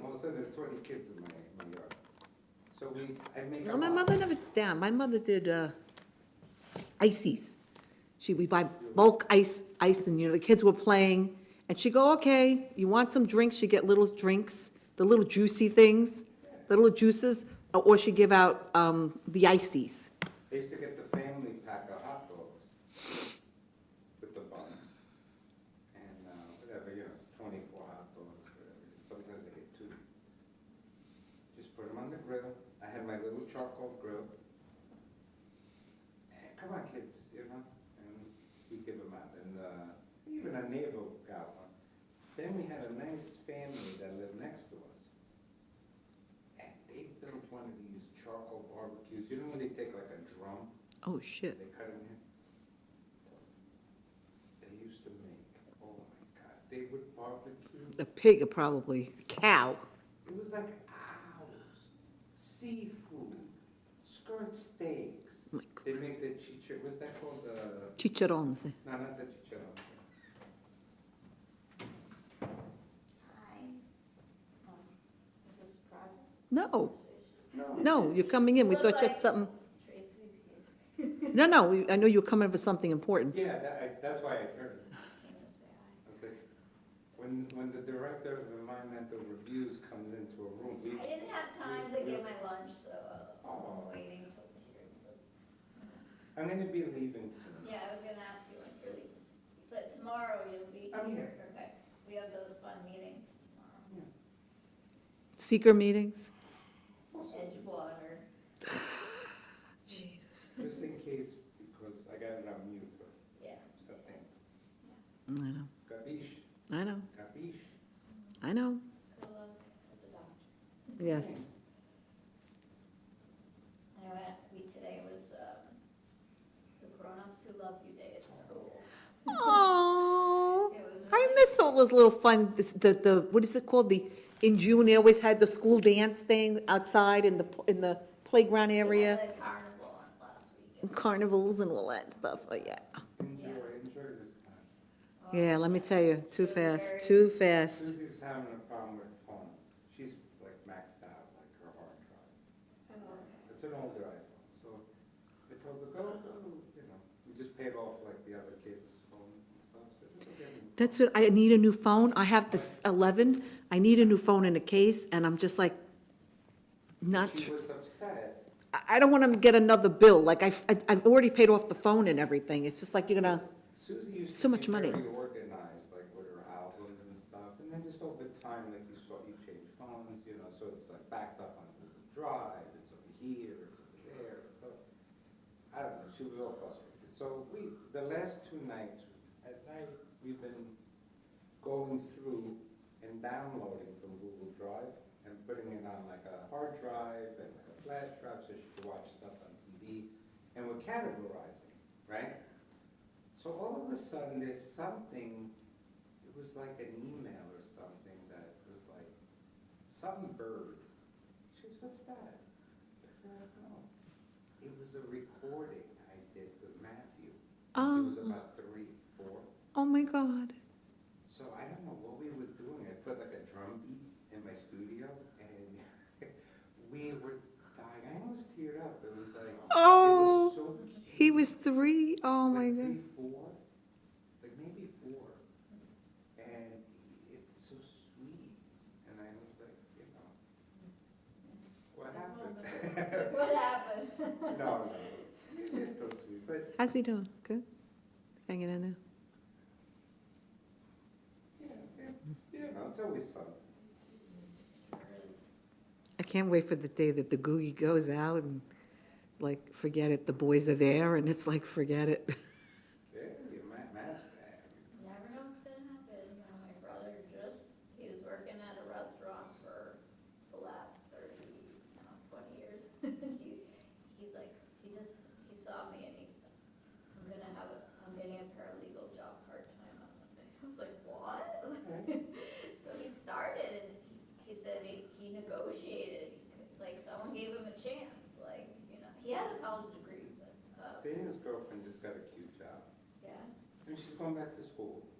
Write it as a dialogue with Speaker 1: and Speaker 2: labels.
Speaker 1: twenty kids in my, my yard. So we, I make a
Speaker 2: No, my
Speaker 1: lot.
Speaker 2: mother never, yeah, my mother did uh, ices. She, we buy bulk ice, ice, and, you know, the kids were playing, and she'd go, okay, you want some drinks, she'd get little drinks, the little juicy things, the little juices, uh, or she'd give out um, the ices.
Speaker 1: They used to get the family pack of hot dogs with the buns and uh, whatever, you know, it's twenty-four hot dogs, whatever. Sometimes I get two. Just put them on the grill. I had my little charcoal grill. And come on, kids, you know, and we give them out. And uh, even a neighbor got one. Then we had a nice family that lived next to us. And they built one of these charcoal barbecues. You know when they take like a drum
Speaker 2: Oh, shit.
Speaker 1: they cut 'em in. They used to make, oh my God, they would barbecue.
Speaker 2: A pig, probably, a cow.
Speaker 1: It was like owls, seafood, skirt steaks.
Speaker 2: Oh my God.
Speaker 1: They make the chicha, what's that called? The,
Speaker 2: Chicharrones.
Speaker 1: no, not the chicharrón.
Speaker 3: Hi. Um, Is this private?
Speaker 2: No,
Speaker 1: No.
Speaker 2: no, you're coming in, we thought you had something,
Speaker 3: Tracy's here.
Speaker 2: no, no, we- I know you were coming for something important.
Speaker 1: Yeah, that, I, that's why I turned.
Speaker 3: Can you say hi?
Speaker 1: I was like, when, when the director of environmental reviews comes into a room, we,
Speaker 3: I didn't have time to get my lunch, so uh,
Speaker 1: Oh.
Speaker 3: I'm waiting till the hearing. so-
Speaker 1: I'm gonna be leaving soon.
Speaker 3: Yeah, I was gonna ask you when you're leaving, but tomorrow you'll be
Speaker 1: I'm
Speaker 3: here, okay? We have those fun meetings tomorrow.
Speaker 2: Seeker meetings?
Speaker 3: Edgewater.
Speaker 2: Jesus.
Speaker 1: Just in case, because I got it on mute, but
Speaker 3: Yeah.
Speaker 1: something.
Speaker 2: I know,
Speaker 1: Capiche?
Speaker 2: I know,
Speaker 1: Capiche?
Speaker 2: I know,
Speaker 3: Good luck at the doctor.
Speaker 2: yes.
Speaker 3: I went, we, today was, um, the grown-ups who love you day at school.
Speaker 2: Oh,
Speaker 3: It was
Speaker 2: I
Speaker 3: really-
Speaker 2: miss all those little fun, this- the, the, what is it called? The, in June, they always had the school dance thing outside in the, in the playground
Speaker 3: We had
Speaker 2: area,
Speaker 3: the carnival on last weekend.
Speaker 2: and carnivals and all that stuff, oh, yeah.
Speaker 1: Enjoy, enjoy this time.
Speaker 2: Yeah, let me tell you, too fast, too fast.
Speaker 1: Susie's having a problem with phone. She's like maxed out, like her hard drive. It's an older iPhone, so I told her, go, go, you know, we just paid off like the other kids' phones and stuff, so it's okay.
Speaker 2: That's what, I need a new phone, I have this eleven, I need a new phone in a case, and I'm just like, not,
Speaker 1: She was upset.
Speaker 2: I, I don't wanna get another bill, like, I've, I've already paid off the phone and everything, it's just like, you're gonna,
Speaker 1: Susie used
Speaker 2: So
Speaker 1: to be
Speaker 2: much money.
Speaker 1: very organized, like with her albums and stuff, and then just over time, like you saw, you change phones, you know, so it's like backed up on Google Drive, it's over here, it's over there, it's up. I don't know, she was all frustrated. So we, the last two nights, at night, we've been going through and downloading from Google Drive and putting it on like a hard drive and like a flash drive so she could watch stuff on TV. And we're categorizing, right? So all of a sudden, there's something, it was like an email or something that was like, some bird. She goes, what's that? I said, I don't know. It was a recording I did with Matthew. It was
Speaker 2: Oh.
Speaker 1: about three, four.
Speaker 2: oh my God.
Speaker 1: So I don't know what we were doing. I put like a drum beat in my studio and we were dying. I almost teared up. It was like,
Speaker 2: Oh,
Speaker 1: it was so cute.
Speaker 2: He was three. Oh my
Speaker 1: like
Speaker 2: God.
Speaker 1: three, four, like maybe four. And it's so sweet. And I was like, you know, what happened?
Speaker 3: What happened?
Speaker 1: no, no, it's still sweet, but
Speaker 2: How's he doing? Good? He's Hanging in there?
Speaker 1: yeah, it, you know, it's always something.
Speaker 2: I can't wait for the day that the Googie goes out and like, forget it, the boys are there and it's like, forget it.
Speaker 1: Yeah, you might, might as well.
Speaker 3: Never know what's gonna happen, you know, my brother just, he was working at a restaurant for the last thirty, no, twenty years. He, he's like, he just, he saw me and he's like, I'm gonna have, a am getting a paralegal job part-time on Monday. I was like, what? So he started and he, he said he, he negotiated, like someone gave him a chance, like, you know, he has a college degree, but, uh,
Speaker 1: Daniel's girlfriend just got a cute job.
Speaker 3: yeah.
Speaker 1: And she's going back to school.